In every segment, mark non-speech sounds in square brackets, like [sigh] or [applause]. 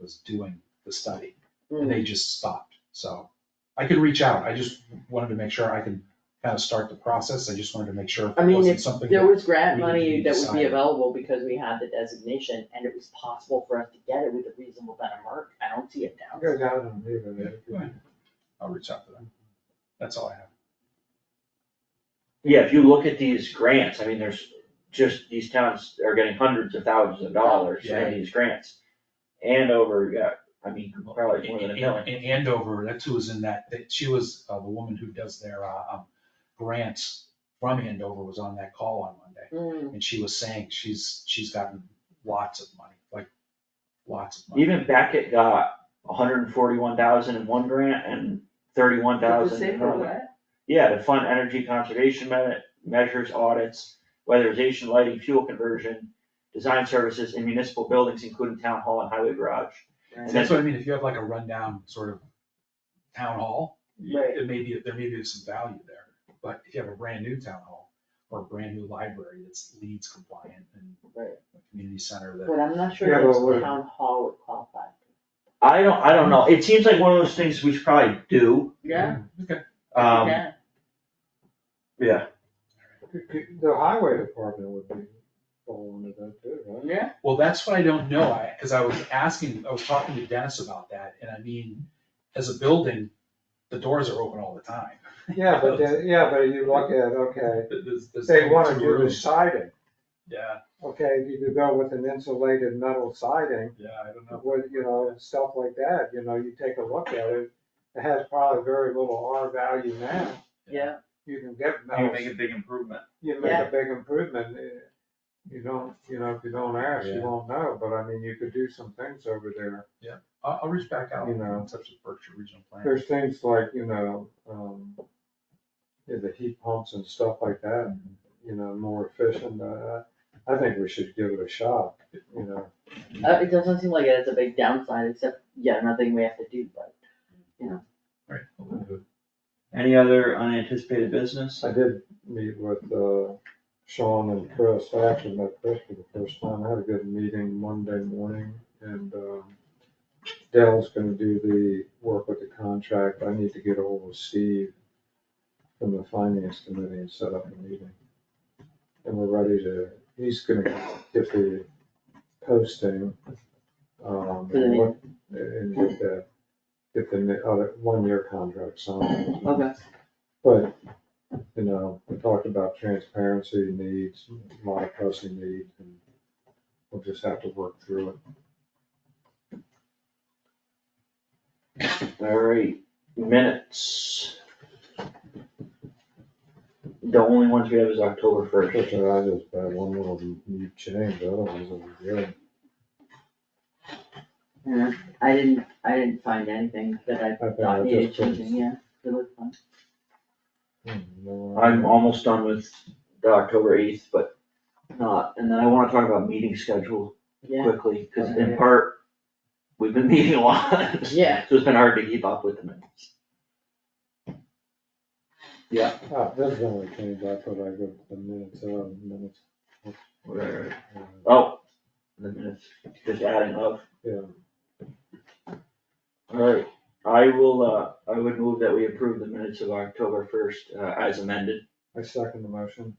was doing the study, Mm-hmm. and they just stopped, so. I could reach out, I just wanted to make sure I could kind of start the process, I just wanted to make sure I it mean, wasn't if something. There that- was grant we money need to that would be decide. available because we had the designation and it was possible for us to get it with a reasonable amount of work. I don't see it I'm now. gonna go down and leave it. Yeah, I'll reach out to them, that's all I have. Yeah, if you look at these grants, I mean, there's just, these towns are getting hundreds of thousands of dollars Yeah. in these grants. Andover, yeah, I mean, probably more than a In- million. In Andover, that's who was in that, that she was, uh, the woman who does their, uh, um, grants from Andover was on that call on Monday. Mm, And she was saying she's, she's gotten lots of money, like, lots of money. Even Beckett got hundred and forty-one thousand in one grant and thirty-one thousand in another. Yeah, to fund energy conservation me- measures, audits, weatherization, lighting, fuel conversion, design services in municipal buildings, including town hall and highway garage. And that's what I mean, if you have like a rundown sort of town hall, Right. it may be, there may be some value there. But if you have a brand new town hall or a brand new library that's leads compliant and Right. a community center that, But I'm not Yeah, sure but that we're- town hall would qualify. I don't, I don't know, it seems like one of those things we should probably do, Yeah, okay, um, yeah. yeah. The highway department would be falling into that too, right? Yeah. well, that's what I don't know, I, cause I was asking, I was talking to Dennis about that, and I mean, as a building, the doors are open all the time. Yeah, but then, yeah, but you look at, okay, There's- there's they wanna two do the rooms. siding, Yeah, okay, if you could go with an insulated metal siding, yeah, I don't know. with, you know, stuff like that, you know, you take a look at it, it has probably very little R value now. Yeah. You can get You metal, make a big improvement. you make Yeah. a big improvement, eh, you don't, you know, if you don't ask, you Yeah. won't know, but I mean, you could do some things over there. I'll, I'll reach back out, You and know. touch with Berkshire Regional Plan. There's things like, you know, um, yeah, the heat pumps and stuff like that, you know, more efficient, uh, I think we should give it a shot, you know. Uh, it doesn't seem like it has a big downside, except, yeah, nothing we have to do, but. Right. we'll do it. Any other unanticipated business? I did meet with, uh, Sean and Chris, I actually met Chris for the first time, I had a good meeting Monday morning, and, um, Dell's gonna do the work with the contract, I need to get hold of Steve from the finance committee and set up a meeting. And we're ready to, he's gonna get the posting, For um, the and meeting. what, and get the, get the other, one-year contract signed. Okay. But, you know, we talked about transparency needs, a lot of pressing needs, and we'll just have to work through it. Alright, minutes. The only ones we have is October first. Especially I just by one little new change, otherwise it'll be good. Yeah, I didn't, I didn't find anything that I I think I thought needed just put- changing, yeah, it looked fun. Hmm, no, I- I'm almost done with the October eighth, but not, and then I wanna talk about meeting schedule Yeah, quickly, cause in part, we've been [laughs] meeting a lot. Yeah. So it's been hard to keep up with the minutes. Ah, this is the only change I put, I go the minutes, uh, minutes, Whatever. uh, Oh, the minutes, just adding up. yeah. Alright, I will, uh, I would move that we approve the minutes of October first, uh, as amended. I second the motion.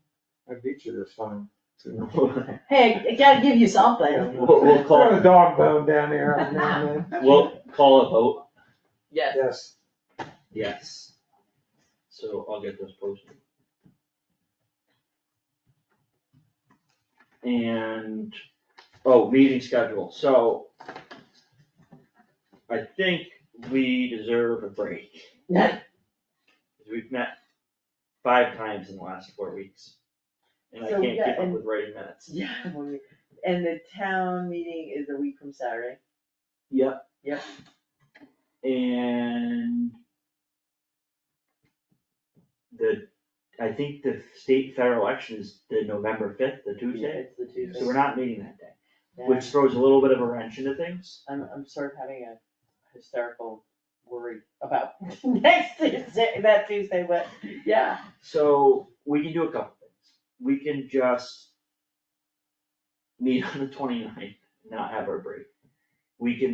I beat you this time. We'll, hey, I gotta give you something, we'll Throw call, a dog bone down here, I'm not- [laughs] [laughs] we'll call a vote, yes. yes. yes. So I'll get those posted. And, oh, meeting schedule, so. I think we deserve a break, Yeah. we've met five times in the last four weeks. And I So, can't yeah, keep up and- with writing minutes. [laughs] Yeah, when we- and the town meeting is a week from Saturday. Yep. Yep. And the, I think the state federal election is the November fifth, the Tuesday, It's the Tuesday. so we're not meeting that day, Yeah. which throws a little bit of a wrench into things. I'm, I'm sort of having a hysterical worry about [laughs] next Tuesday, that Tuesday, but yeah. So we can do a couple things. We can just meet on the 29th, not have our break. We can